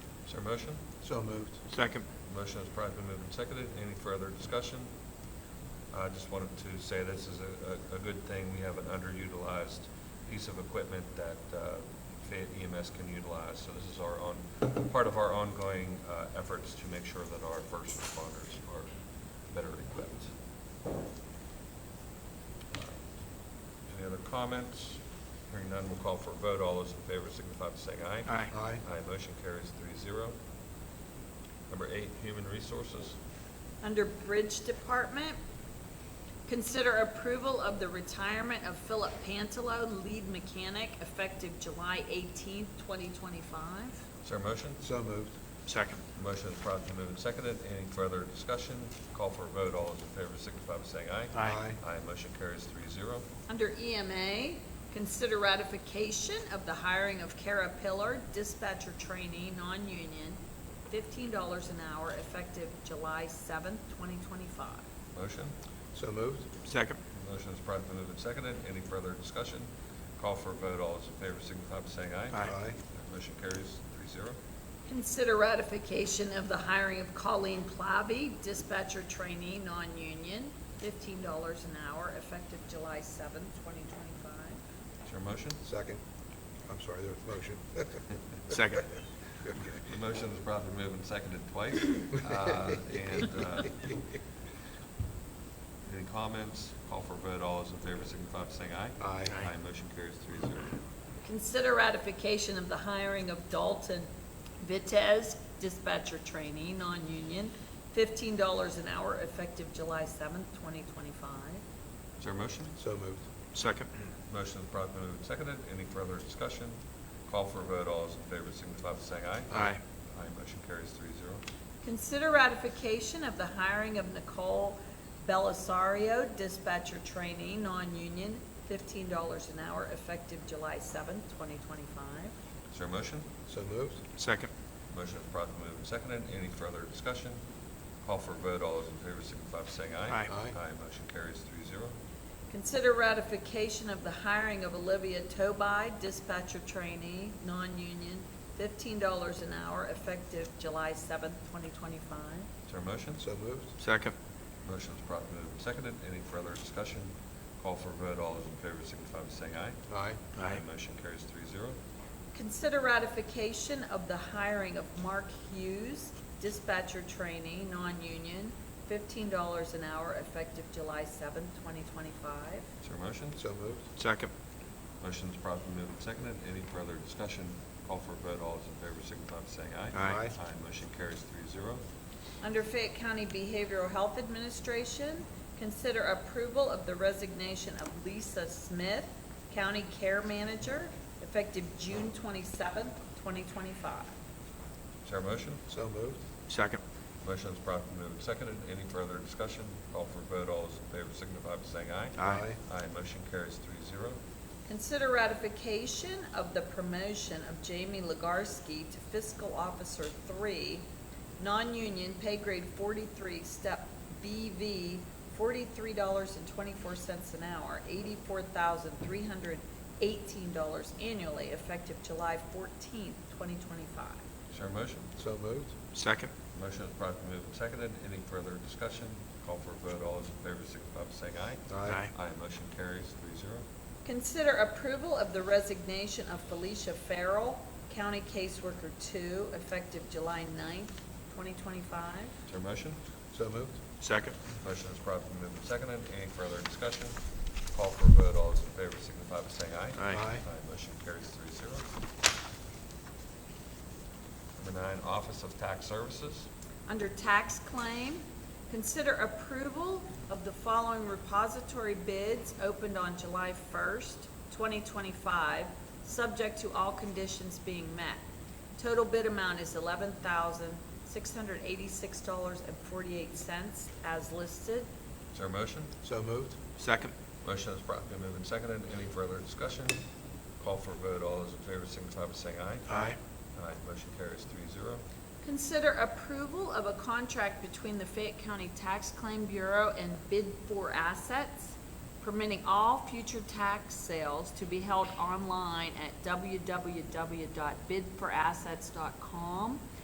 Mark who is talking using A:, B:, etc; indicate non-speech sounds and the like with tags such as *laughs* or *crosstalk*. A: Is there a motion?
B: So moved.
C: Second.
A: Motion is probably been moved and seconded. Any further discussion? I just wanted to say this is a, a, a good thing. We have an underutilized piece of equipment that uh, Fayette EMS can utilize. So this is our own, part of our ongoing uh, efforts to make sure that our first responders are better equipped. Any other comments? Hearing none, we'll call for a vote. All those in favor signify by saying aye.
C: Aye.
B: Aye.
A: Aye, motion carries three zero. Number eight, human resources.
D: Under Bridge Department, consider approval of the retirement of Philip Pantalo, lead mechanic, effective July eighteenth, twenty twenty-five.
A: Is there a motion?
B: So moved.
C: Second.
A: Motion is promptly moved and seconded. Any further discussion? Call for a vote. All those in favor signify by saying aye.
C: Aye.
A: Aye, motion carries three zero.
D: Under EMA, consider ratification of the hiring of Kara Pillar, dispatcher trainee, non-union, fifteen dollars an hour, effective July seventh, twenty twenty-five.
A: Motion?
B: So moved.
C: Second.
A: Motion is promptly moved and seconded. Any further discussion? Call for a vote. All those in favor signify by saying aye.
C: Aye.
A: Motion carries three zero.
D: Consider ratification of the hiring of Colleen Plavi, dispatcher trainee, non-union, fifteen dollars an hour, effective July seventh, twenty twenty-five.
A: Is there a motion?
B: Second. I'm sorry, there was
A: *laughs*
B: a motion.
C: Second.
B: Okay.
A: The motion is promptly moved and seconded
C: *laughs*
A: twice.
B: *laughs*
A: Uh, And uh, Any comments? Call for a vote. All those in favor signify by saying aye.
B: Aye.
C: Aye.
A: motion carries three zero.
D: Consider ratification of the hiring of Dalton Vitez, dispatcher trainee, non-union, fifteen dollars an hour, effective July seventh, twenty twenty-five.
A: Is there a motion?
B: So moved.
C: Second.
A: Motion is promptly moved and seconded. Any further discussion? Call for a vote. All those in favor signify by saying aye.
C: Aye.
A: Aye, motion carries three zero.
D: Consider ratification of the hiring of Nicole Belisario, dispatcher trainee, non-union, fifteen dollars an hour, effective July seventh, twenty twenty-five.
A: Is there a motion?
B: So moved.
C: Second.
A: Motion is promptly moved and seconded. Any further discussion? Call for a vote. All those in favor signify by saying aye.
C: Aye.
B: Aye.
A: Aye, motion carries three zero.
D: Consider ratification of the hiring of Olivia Toby, dispatcher trainee, non-union, fifteen dollars an hour, effective July seventh, twenty twenty-five.
A: Is there a motion?
B: So moved.
C: Second.
A: Motion is promptly moved and seconded. Any further discussion? Call for a vote. All those in favor signify by saying aye.
B: Aye.
C: Aye.
A: Motion carries three zero.
D: Consider ratification of the hiring of Mark Hughes, dispatcher trainee, non-union, fifteen dollars an hour, effective July seventh, twenty twenty-five.
A: Is there a motion?
B: So moved.
C: Second.
A: Motion is promptly moved and seconded. Any further discussion? Call for a vote. All those in favor signify by saying aye.
C: Aye.
B: Aye.
A: Aye. Motion carries three zero.
D: Under Fayette County Behavioral Health Administration, consider approval of the resignation of Lisa Smith, county care manager, effective June twenty-seventh, twenty twenty-five.
A: Is there a motion?
B: So moved.
C: Second.
A: Motion is promptly moved and seconded. Any further discussion? Call for a vote. All those in favor signify by saying aye.
C: Aye.
A: Aye. Motion carries three zero.
D: Consider ratification of the promotion of Jamie Legarsky to fiscal officer three, non-union, pay grade forty-three, step BV, forty-three dollars and twenty-four cents an hour, eighty-four thousand three hundred eighteen dollars annually, effective July fourteenth, twenty twenty-five.
A: Is there a motion?
B: So moved.
C: Second.
A: Motion is promptly moved and seconded. Any further discussion? Call for a vote. All those in favor signify by saying aye.
C: Aye.
A: Aye. Motion carries three zero.
D: Consider approval of the resignation of Felicia Farrell, county caseworker two, effective July ninth, twenty twenty-five.
A: Is there a motion?
B: So moved.
C: Second.
A: Motion is promptly moved and seconded. Any further discussion? Call for a vote. All those in favor signify by saying aye.
C: Aye.
B: Aye.
A: motion carries three zero. Number nine, Office of Tax Services.
D: Under tax claim, consider approval of the following repository bids opened on July 1st, 2025, subject to all conditions being met. Total bid amount is $11,686.48 as listed.
A: Is there a motion?
B: So moved.
C: Second.
A: Motion is promptly moved and seconded. Any further discussion? Call for a vote. All those in favor signify by saying aye.
C: Aye.
A: Aye, motion carries three zero.
D: Consider approval of a contract between the Fayette County Tax Claim Bureau and Bid for Assets, permitting all future tax sales to be held online at www.bidforassets.com.